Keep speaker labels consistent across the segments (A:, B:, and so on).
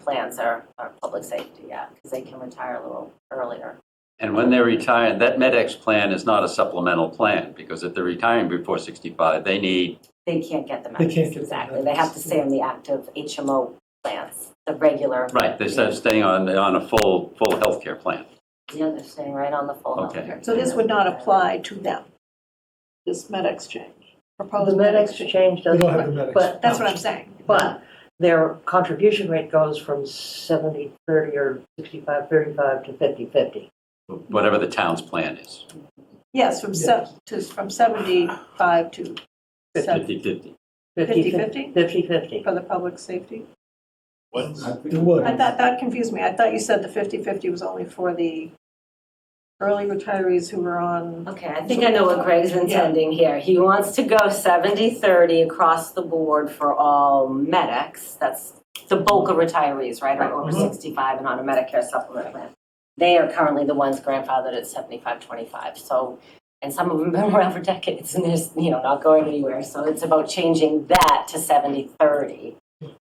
A: plans are, are public safety, yeah, because they can retire a little earlier.
B: And when they're retired, that MedX plan is not a supplemental plan, because if they're retiring before 65, they need,
A: They can't get the
C: They can't
A: benefits,
C: get the
A: exactly. They have to stay on the active HMO plans, the regular.
B: right, they start staying on, on a full, full healthcare plan.
A: Yeah, they're staying right on the full. health
B: Okay.
A: care.
D: So this would not apply to them, this med exchange,
E: The
D: proposed med
E: med
D: exchange.
E: exchange
C: We
E: doesn't.
C: don't have the med
E: But,
D: That's what I'm saying.
E: but their contribution rate goes from 70, 30 or 65, 35 to 50, 50.
B: Whatever the town's plan is,
D: Yes, from se, to, from 75 to 50,
B: 50/50.
D: 50
E: 50, 50.
D: for the public safety.
F: What's,
C: It would.
D: I thought, that confused me. I thought you said the 50/50 was only for the early retirees who were on,
A: Okay, I think I know what Greg's intending here. He wants to go 70-30 across the board for all medics. That's the bulk of retirees, right, are over
C: Mhm.
A: 65 and on a Medicare supplement plan. They are currently the ones grandfathered at 75-25, so, and some of them have been around for decades and there's, you know, not going anywhere. So it's about changing that to 70-30.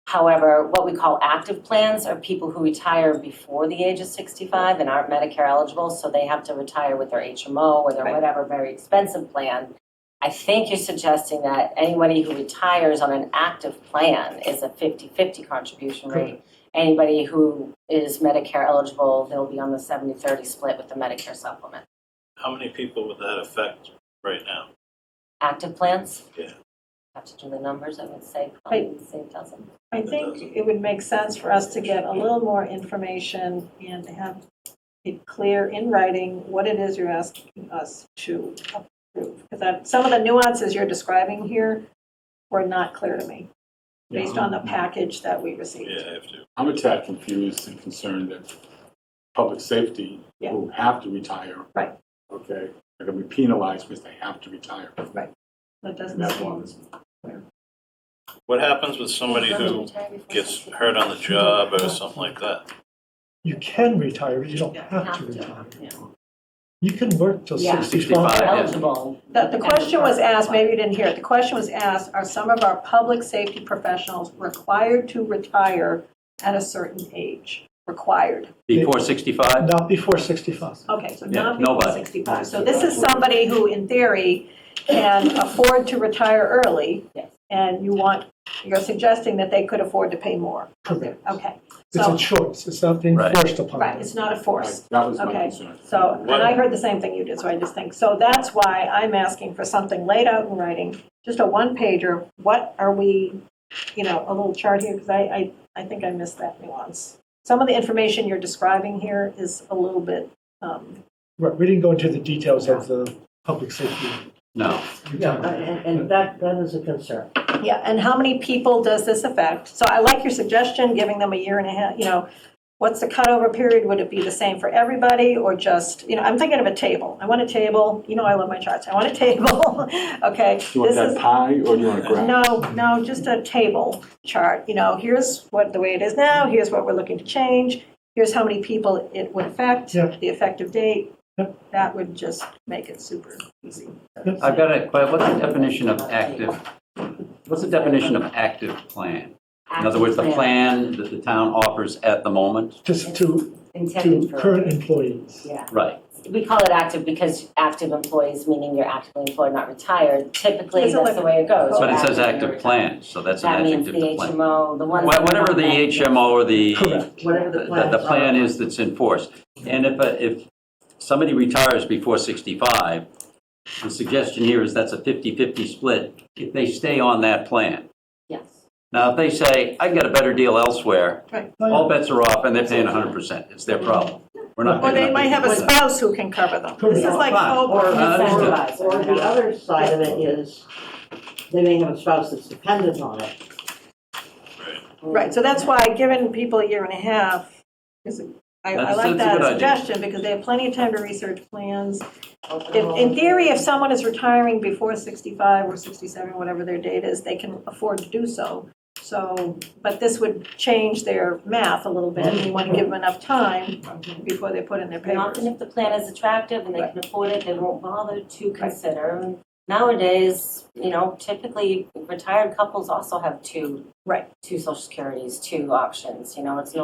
A: However, what we call active plans are people who retire before the age of 65 and aren't Medicare eligible, so they have to retire with their HMO or their
D: Right.
A: whatever very expensive plan. I think you're suggesting that anybody who retires on an active plan is a 50/50 contribution rate. Anybody who is Medicare eligible, they'll be on the 70/30 split with the Medicare supplement.
F: how many people would that affect right now?
A: Active plans?
F: Yeah.
A: Have to do the numbers, I would say, probably say a dozen.
D: I think it would make sense for us to get a little more information and to have it clear in writing what it is you're asking us to approve. Because some of the nuances you're describing here were not clear to me, based on the package that we
F: Yeah,
D: received.
F: I have to.
G: I'm a tad confused and concerned that public safety,
D: Yeah.
G: who have to retire.
D: Right.
G: Okay, they're gonna be penalized because they have to retire.
D: That
G: And
D: doesn't
G: that
D: seem,
G: bothers me.
F: What happens with somebody who gets hurt on the job or something like that?
C: You can retire, but you don't have to
A: Have to,
C: retire.
A: yeah.
C: You can work till
A: Yeah.
C: 65.
B: yeah.
A: Eligible.
D: the, the question was asked, maybe you didn't hear it, the question was asked, are some of our public safety professionals required to retire at a certain age? Required.
B: Before 65?
C: Not before 65.
D: Okay, so
B: Yeah,
D: not people
B: nobody.
D: 65. So this is somebody who, in theory, can afford to retire early,
A: Yes.
D: and you want, you're suggesting that they could afford to pay more.
C: Correct.
D: Okay,
C: It's a
D: so,
C: choice. It's not being
B: Right.
C: forced upon
D: right,
C: them.
D: it's not a
G: Right,
D: force.
G: That was my
D: Okay.
G: concern.
D: So, and I heard the same thing you did, so I just think, so that's why I'm asking for something laid out in writing, just a one-pager, what are we, you know, a little chart here, because I, I, I think I missed that nuance. Some of the information you're describing here is a little bit, um,
C: Right, we didn't go into the details of the public safety.
B: No.
C: Yeah,
E: And, and that, that is a concern.
D: Yeah, and how many people does this affect? So I like your suggestion, giving them a year and a half, you know, what's the cutover period? Would it be the same for everybody or just, you know, I'm thinking of a table. I want a table, you know I love my charts, I want a table, okay?
G: Do you want
D: this is-
G: that pie or do you want a graph?
D: No, no, just a table chart, you know, here's what, the way it is now, here's what we're looking to change, here's how many people it would affect,
C: Yeah.
D: the effective date.
C: Yep.
D: That would just make it super easy.
B: I've got a, que- what's the definition of active, what's the definition of active plan? In other words, the
A: Active
B: plan that the town offers at the moment?
C: Just to, to
A: Intended for.
C: current employees.
A: Yeah.
B: Right,
A: we call it active because active employees, meaning you're actively employed, not retired, typically
D: Is it
A: that's
D: like-
A: the way it goes.
B: but it
A: You're active,
B: says
A: you're
B: active
A: retired.
B: plan, so that's an
A: That means the
B: adjective to plan.
A: HMO, the
B: Wha-
A: ones. that
B: Whatever
A: are
B: the
A: not-
B: HMO or the
C: Correct.
E: Whatever the
B: the,
E: plan.
B: the plan is that's enforced. And if, a- if somebody retires before 65, the suggestion here is that's a 50-50 split if they stay on that plan.
A: Yes.
B: Now, if they say, I can get a better deal elsewhere,
D: Oh,
B: all bets are off and they're paying 100%. It's their problem. We're not
D: Or
B: picking
D: they
B: up
D: might have a
B: 50%.
D: spouse who can cover them. This is like
B: Fine.
D: Cobra.
E: Or,
B: Uh,
A: Incentivized,
E: or or
A: you
E: the
A: know.
E: other side of it is, they may have a spouse that's dependent on it.
D: Right, so that's why giving people a year and a half is, I, I
B: That's- that's
D: like
B: a
D: that
B: good idea.
D: suggestion, because they have plenty of time to research plans.
A: Open
D: If, in
A: enrollment.
D: theory, if someone is retiring before sixty-five or sixty-seven, whatever their date is, they can afford to do so. So, but this would change their math a little bit, and you want to give them enough time before they put in their
A: And
D: papers.
A: often if the plan is attractive and they can afford it, they won't bother to consider. And Nowadays, you know, typically retired couples also have two.
D: Right.
A: Two social securities, two options, you know, it's no